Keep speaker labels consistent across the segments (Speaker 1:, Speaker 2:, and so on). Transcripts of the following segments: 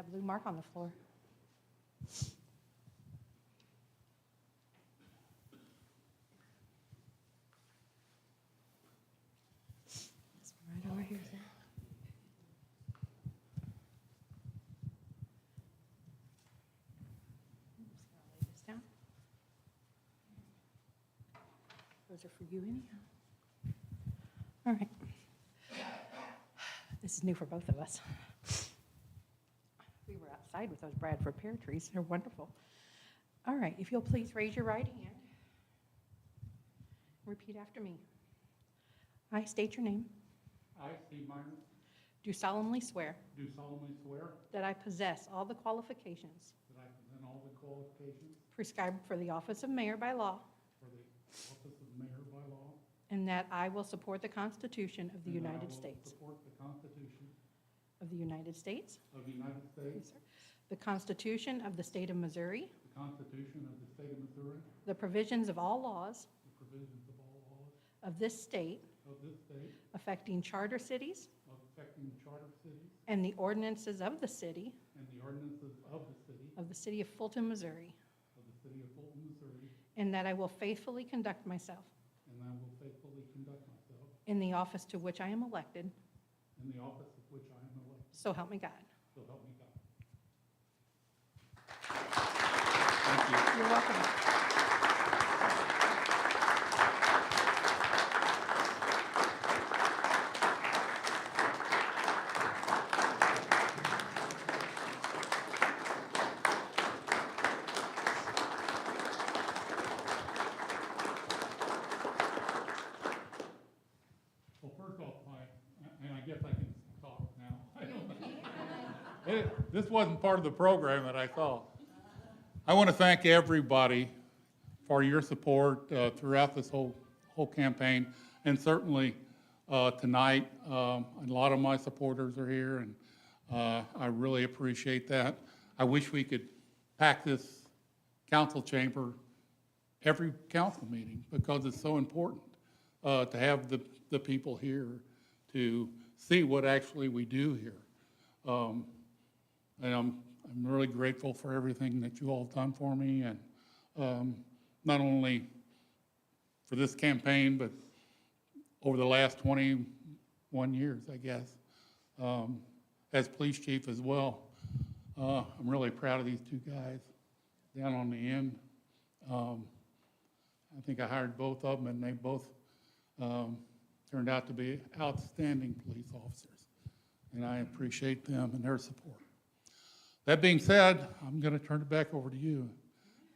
Speaker 1: A blue mark on the floor. This one right over here. I'm just gonna lay this down. Those are for you anyhow. All right. This is new for both of us. We were outside with those Bradford pear trees. They're wonderful. All right, if you'll please raise your right hand. Repeat after me. I state your name.
Speaker 2: I, Steve Meyer,
Speaker 1: Do solemnly swear
Speaker 2: do solemnly swear
Speaker 1: that I possess all the qualifications
Speaker 2: that I present all the qualifications
Speaker 1: prescribed for the office of mayor by law,
Speaker 2: for the office of mayor by law.
Speaker 1: and that I will support the Constitution of the
Speaker 2: and that I
Speaker 1: United
Speaker 2: will
Speaker 1: States,
Speaker 2: Support the Constitution
Speaker 1: of the United States,
Speaker 2: of the United
Speaker 1: yes,
Speaker 2: States,
Speaker 1: sir, the Constitution of the state of Missouri,
Speaker 2: the Constitution of the state of Missouri,
Speaker 1: the provisions of all laws
Speaker 2: the provisions of all laws
Speaker 1: of this state
Speaker 2: of this state
Speaker 1: affecting charter cities
Speaker 2: affecting charter cities
Speaker 1: and the ordinances of the city
Speaker 2: and the ordinances of the city,
Speaker 1: of the city of Fulton, Missouri,
Speaker 2: of the city of Fulton, Missouri,
Speaker 1: and that I will faithfully conduct myself
Speaker 2: and I will faithfully conduct myself
Speaker 1: in the office to which I am elected,
Speaker 2: in the office of which I am elected.
Speaker 1: so help me God.
Speaker 2: So help me God. Thank you.
Speaker 1: You're welcome.
Speaker 2: Well, first off, my, and I guess I can talk now. I don't know. It- This wasn't part of the program that I saw. I want to thank everybody for your support uh, throughout this whole, whole campaign, and certainly uh, tonight, um, a lot of my supporters are here, and uh, I really appreciate that. I wish we could pack this council chamber every council meeting because it's so important uh, to have the, the people here to see what actually we do here. Um, And I'm, I'm really grateful for everything that you all have done for me and um, not only for this campaign, but over the last 21 years, I guess, um, as police chief as well. Uh, I'm really proud of these two guys down on the end. Um, I think I hired both of them, and they both um, turned out to be outstanding police officers, and I appreciate them and their support. That being said, I'm going to turn it back over to you.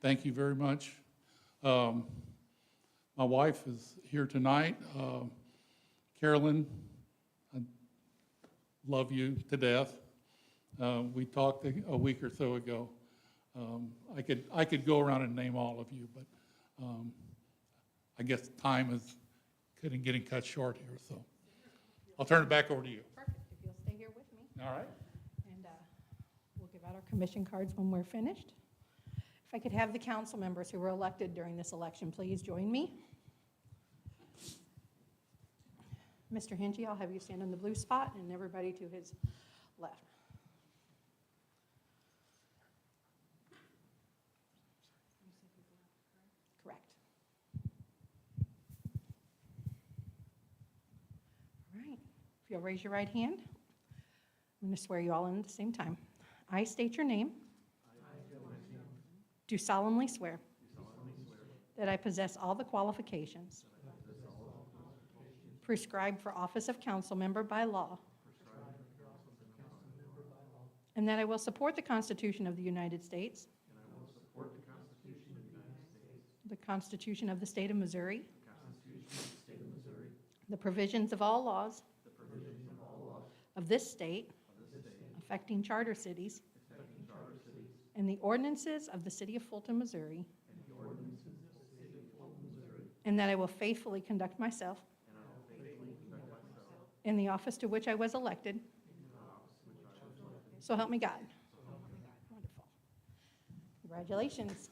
Speaker 2: Thank you very much. Um, My wife is here tonight. Um, Carolyn, I love you to death. Uh, We talked a a week or so ago. Um, I could, I could go around and name all of you, but um, I guess time is getting, getting cut short here, so. I'll turn it back over to you.
Speaker 1: Perfect, if you'll stay here with me,
Speaker 2: All right?
Speaker 1: and uh, we'll give out our commission cards when we're finished. If I could have the council members who were elected during this election, please join me. Mr. Hingy, I'll have you stand in the blue spot, and everybody to his left. Correct. All right, if you'll raise your right hand, I'm going to swear you all in at the same time. I state your name. Do solemnly swear. That I possess all the qualifications. Prescribed for office of council member by law. And that I will support the Constitution of the United States. the Constitution of the State of Missouri. The provisions of all laws. Of this state. Affecting charter cities. And the ordinances of the city of Fulton, Missouri. And that I will faithfully conduct myself. In the office to which I was elected. So help me God. Wonderful. Congratulations.